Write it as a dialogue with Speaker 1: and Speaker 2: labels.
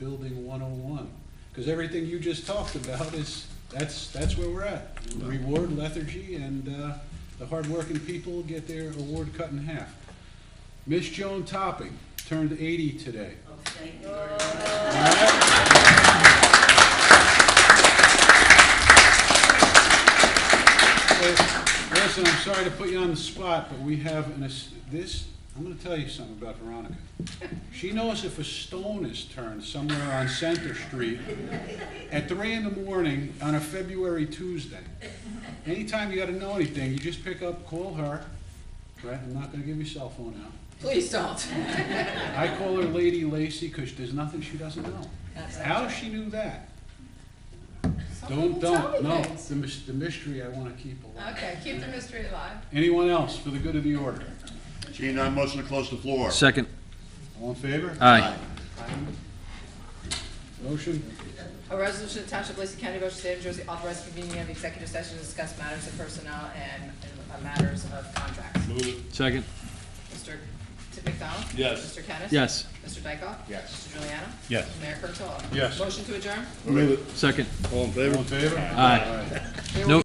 Speaker 1: building one oh one. Cause everything you just talked about is, that's, that's where we're at. Reward lethargy and, uh, the hardworking people get their award cut in half. Miss Joan Topping turned eighty today.
Speaker 2: Oh, thank you very much.
Speaker 1: But, Listen, I'm sorry to put you on the spot, but we have an, ass- this, I'm gonna tell you something about Veronica. She knows if a stone is turned somewhere on Center Street at three in the morning on a February Tuesday. Anytime you gotta know anything, you just pick up, call her, right? I'm not gonna give your cell phone out.
Speaker 3: Please don't.
Speaker 1: I call her Lady Lacy, 'cause there's nothing she doesn't know. How she knew that?
Speaker 3: Oh,
Speaker 1: Don't, don't, no, the mys- the mystery I wanna keep alive.
Speaker 3: Okay, keep the mystery alive.
Speaker 1: Anyone else for the good of the order?
Speaker 4: Seeing none, motion to close the floor.
Speaker 5: Second.
Speaker 1: All in favor?
Speaker 5: Aye.
Speaker 1: Motion?
Speaker 3: A resolution of Township of Lacey County, Ocean State, New Jersey, authorizing convening of executive session to discuss matters of personnel and uh, matters of contracts.
Speaker 4: Move it.
Speaker 5: Second.
Speaker 3: Mr. Tim McDonald?
Speaker 4: Yes.
Speaker 3: Mr. Kennis?
Speaker 5: Yes.
Speaker 3: Mr. Dykoff?
Speaker 4: Yes.
Speaker 3: Mr. Juliana?
Speaker 5: Yes.
Speaker 3: Mayor Kurtolo?
Speaker 1: Yes.
Speaker 3: Motion to adjourn?
Speaker 5: Second.
Speaker 4: All in
Speaker 1: All
Speaker 4: favor?
Speaker 1: in favor?
Speaker 5: Aye.
Speaker 1: Aye.
Speaker 5: No.